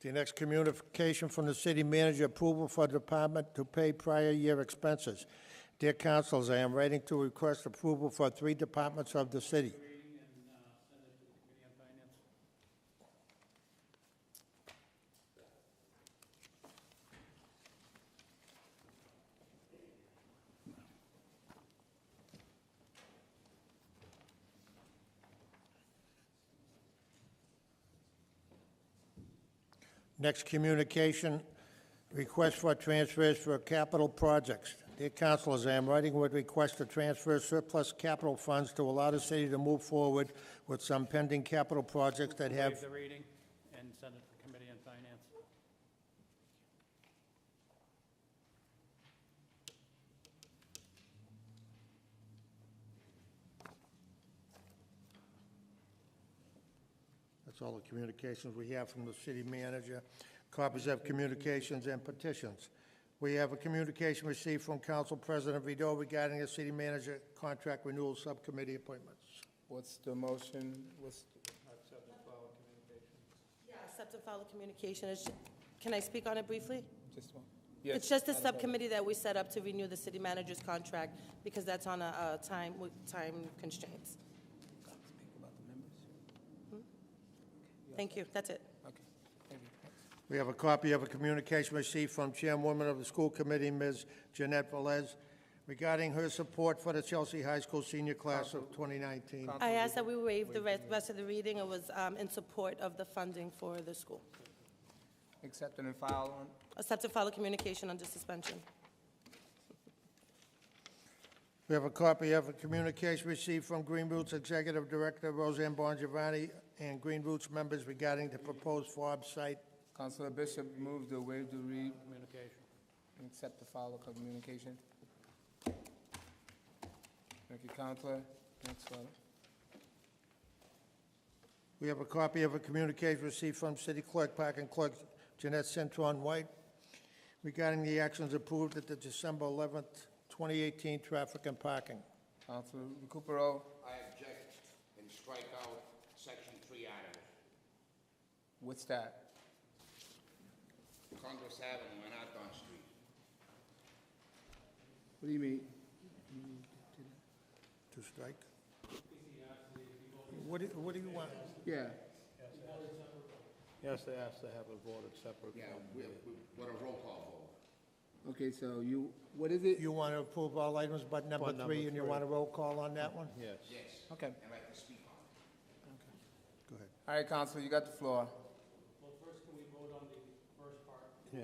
The next communication from the city manager, approval for department to pay prior year expenses. Dear councils, I am writing to request approval for three departments of the city. Next communication, request for transfers for capital projects. Dear councilors, I am writing with request to transfer surplus capital funds to allow the city to move forward with some pending capital projects that Waive have, the reading and send it to Committee on Finance. that's all the communications we have from the city manager, copies of communications and petitions. We have a communication received from Council President Vido regarding the city manager contract renewal subcommittee appointments. What's the motion? What's, Accept and follow communication. It's- Can I speak on it briefly? just one? It's just a subcommittee that we set up to renew the city manager's contract because that's on a, a time, with time constraints. Thank you, that's it. We have a copy of a communication received from Chairwoman of the School Committee, Ms. Jeanette Velez, regarding her support for the Chelsea High School senior class of 2019. I asked that we waive the re- rest of the reading. It was um, in support of the funding for the school. Accepting and file on, Accept and follow communication under suspension. We have a copy of a communication received from Green Roots Executive Director Roseanne Bongiovanni and Green Roots members regarding the proposed FOB site. Councilor Bishop moved to waive the read Communication. and accept the file of communication. Thank you, Councilor. uh, Next one. We have a copy of a communication received from City Clerk, Park and Clerk Jeanette Centron White regarding the actions approved at the December 11th, 2018 traffic and parking. Councilor Recupero I object and strike out section three items. what's that? Congress Avenue and Arthur Street. What do you mean? To strike? What do, what do you want? Yeah. Yes, they asked to have it voted separately. Yeah, we, we, what a roll call Okay, so you, what is it? You want to approve all items but number But number three, and you three. want a roll call on that one? Yes. vote, yes, Okay. and I can speak on it. Go ahead. All right, Councilor, you got the floor. Well, first, can we vote on the first part? Yeah.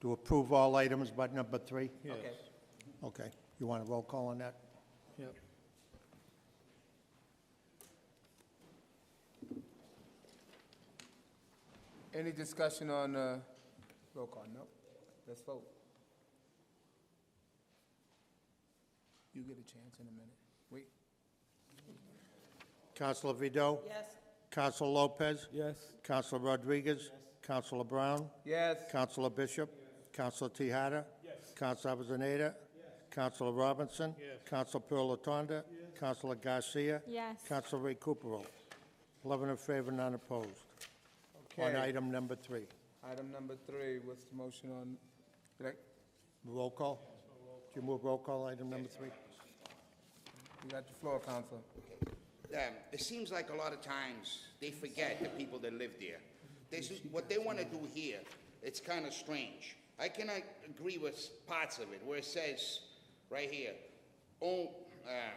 To approve all items but number three? Yes. Okay. Okay. You want a roll call on that? Yep. Any discussion on, uh, roll call? No? Let's vote. You get a chance in a minute. Wait. Counselor Vido? Yes. Counselor Lopez? Yes. Counselor Rodriguez? Counselor Brown? Yes. Counselor Bishop? Counselor Tahada? Yes. Counselor Avellaneda? Yes. Counselor Robinson? Yes. Counselor Pilatanda? Yes. Counselor Garcia? Yes. Counselor Recupero? Eleven in favor, none opposed. on Okay. item number three. Item number three, what's the motion on, did I- Roll call? Do you move roll call, item number three? you got the floor, Counselor. Um, it seems like a lot of times they forget the people that live there. This is, what they wanna do here, it's kinda strange. I cannot agree with parts of it, where it says, right here, on, uh,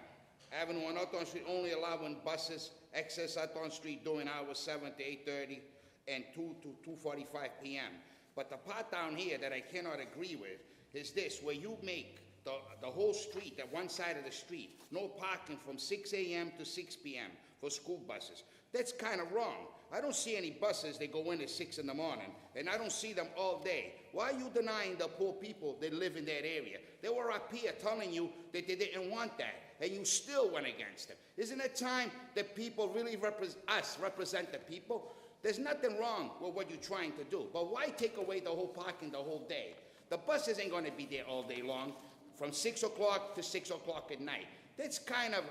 Avenue on Hawthorne Street only allowing buses access Hawthorne Street during hours seven to eight thirty and two to two forty-five PM. But the part down here that I cannot agree with is this, where you make the, the whole street, that one side of the street, no parking from six AM to six PM for school buses. That's kinda wrong. I don't see any buses that go in at six in the morning, and I don't see them all day. Why are you denying the poor people that live in that area? They were up here telling you that they didn't want that, and you still went against them. Isn't it time that people really repres us represent the people? There's nothing wrong with what you're trying to do, but why take away the whole parking the whole day? The buses ain't gonna be there all day long, from six o'clock to six o'clock at night. That's kind of